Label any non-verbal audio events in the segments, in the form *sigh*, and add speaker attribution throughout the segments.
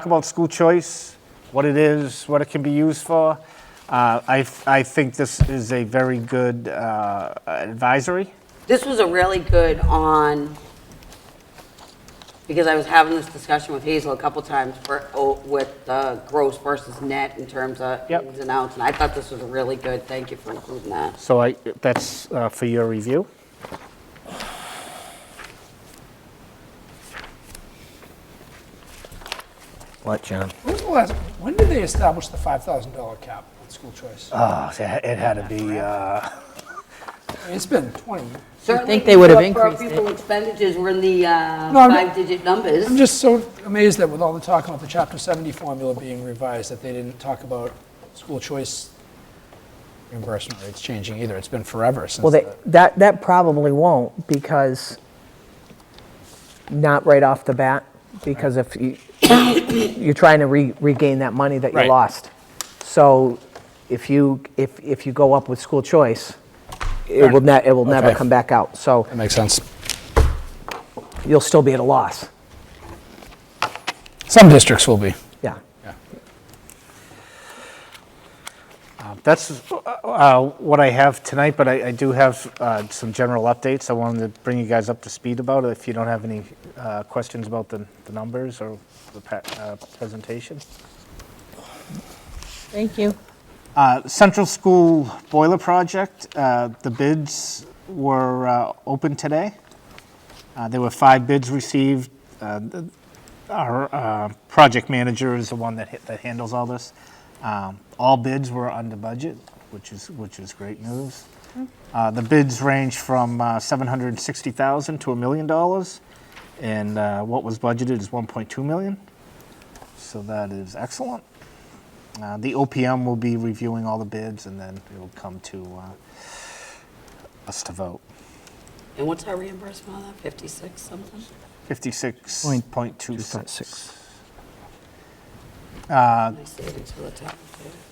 Speaker 1: talk about school choice, what it is, what it can be used for. Uh, I, I think this is a very good uh, advisory.
Speaker 2: This was a really good on, because I was having this discussion with Hazel a couple times for, oh, with uh, gross versus net in terms of
Speaker 1: Yep.
Speaker 2: ins and outs, and I thought this was a really good, thank you for including that.
Speaker 1: So I, that's uh, for your review.
Speaker 3: What, John?
Speaker 4: When was the last- When did they establish the $5,000 cap with school choice?
Speaker 1: Oh, it had- it had to be, uh,
Speaker 4: I mean, It's been 20.
Speaker 2: Certainly,
Speaker 5: think they would have
Speaker 2: per
Speaker 5: increased it.
Speaker 2: pupil expenditures were in the uh,
Speaker 4: No, I'm-
Speaker 2: five-digit numbers.
Speaker 4: I'm just so amazed that with all the talk about the Chapter 70 formula being revised, that they didn't talk about school choice reimbursement rates changing either. It's been forever since.
Speaker 5: Well, they,
Speaker 4: the-
Speaker 5: that, that probably won't because, not right off the bat, because if you, you're trying to re- regain that money that you
Speaker 4: Right.
Speaker 5: lost. So if you, if, if you go up with school choice, it will ne, it will never
Speaker 4: Okay.
Speaker 5: come back out. So
Speaker 4: That makes sense.
Speaker 5: you'll still be at a loss.
Speaker 4: Some districts will be.
Speaker 5: Yeah.
Speaker 1: That's uh, uh, what I have tonight, but I I do have uh, some general updates. I wanted to bring you guys up to speed about it, if you don't have any uh, questions about the the numbers or the pa- uh, presentation.
Speaker 5: Thank you.
Speaker 1: Uh, Central School Boiler Project, uh, the bids were uh, open today. Uh, There were five bids received. Uh, th- Our uh, project manager is the one that hit- that handles all this. Um, All bids were under budget, which is, which is great news. Uh, The bids range from uh, $760,000 to a million dollars, and uh, what was budgeted is 1.2 million. So that is excellent. Uh, The OPM will be reviewing all the bids, and then it will come to uh, us to vote.
Speaker 2: And what's our reimbursement on that, 56 something?
Speaker 1: 56.26.
Speaker 2: I saved it till the top.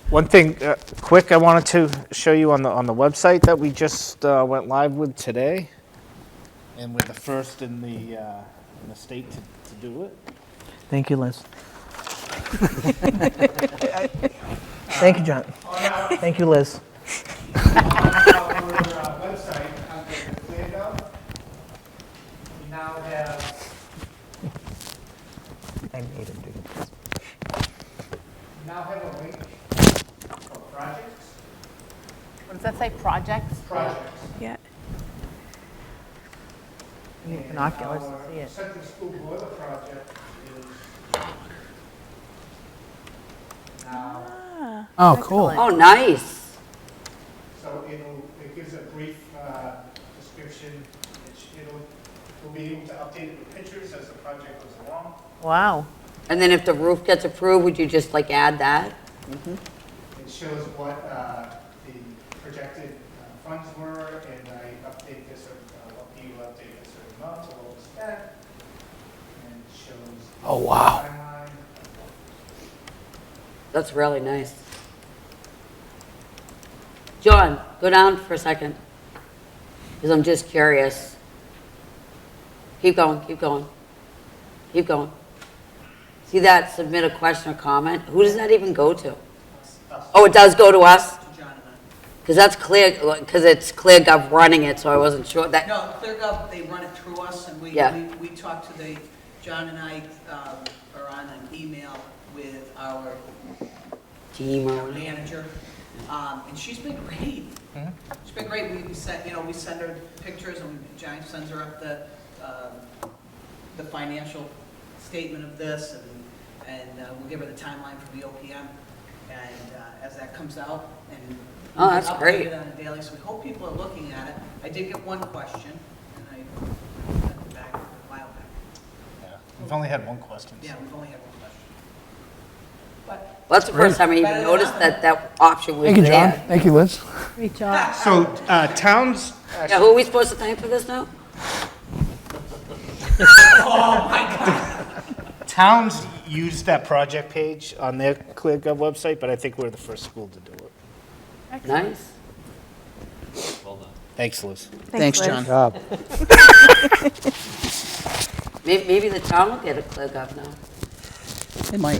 Speaker 1: One thing, uh, quick, I wanted to show you on the, on the website that we just uh, went live with today, and we're the first in the, uh, in the state to to do it.
Speaker 5: Thank you, Liz. *laughs* Thank you, John. Thank you, Liz.
Speaker 6: our uh, website under the clear note. We now have
Speaker 5: I made him do this.
Speaker 6: now have a link for projects,
Speaker 7: What does that say, projects?
Speaker 6: projects.
Speaker 7: Yeah.
Speaker 5: Binoculars
Speaker 6: Our
Speaker 5: to see it.
Speaker 6: Central School Boiler Project is now,
Speaker 4: Oh, cool.
Speaker 2: Oh, nice.
Speaker 6: so it'll, it gives a brief uh, description. It's- It'll, we'll be able to update it with pictures as the project goes along.
Speaker 7: Wow.
Speaker 2: And then if the roof gets approved, would you just like add that?
Speaker 6: It shows what uh, the projected uh, funds were, and I update this, or uh, what you update this or not, to what was spent. And it shows.
Speaker 4: Oh, wow.
Speaker 6: Timeline.
Speaker 2: That's really nice. John, go down for a second, because I'm just curious. Keep going, keep going, keep going. See that, submit a question or comment? Who does that even go to? Oh, it does go to us? Because that's clear, because it's ClearGov running it, so I wasn't sure that,
Speaker 8: No, ClearGov, they run it through us, and we,
Speaker 2: Yeah.
Speaker 8: we- we talk to the, John and I um, are on an email with our
Speaker 2: team or whatever.
Speaker 8: manager, um, and she's been great. She's been great, we, we sent, you know, we send her pictures, and John sends her up the, um, the financial statement of this, and, and uh, we'll give her the timeline for the OPM, and uh, as that comes out, and.
Speaker 2: Oh, that's
Speaker 8: update
Speaker 2: great.
Speaker 8: it on a daily, so we hope people are looking at it. I did get one question, and I sent it back a while back.
Speaker 1: We've only had one question.
Speaker 8: Yeah, we've only had one question. But
Speaker 2: Well, that's the first time I even
Speaker 8: Better than
Speaker 2: noticed that that option was
Speaker 4: Thank you, John.
Speaker 2: there.
Speaker 4: Thank you, Liz.
Speaker 5: Great job.
Speaker 1: So uh, towns,
Speaker 2: Yeah, who are we supposed to thank for this now?
Speaker 1: towns use that project page on their ClearGov website, but I think we're the first school to do it.
Speaker 2: Nice.
Speaker 1: Thanks, Liz.
Speaker 8: Thanks,
Speaker 7: Liz.
Speaker 8: John.
Speaker 2: May- Maybe the town will get a ClearGov now.
Speaker 8: It might.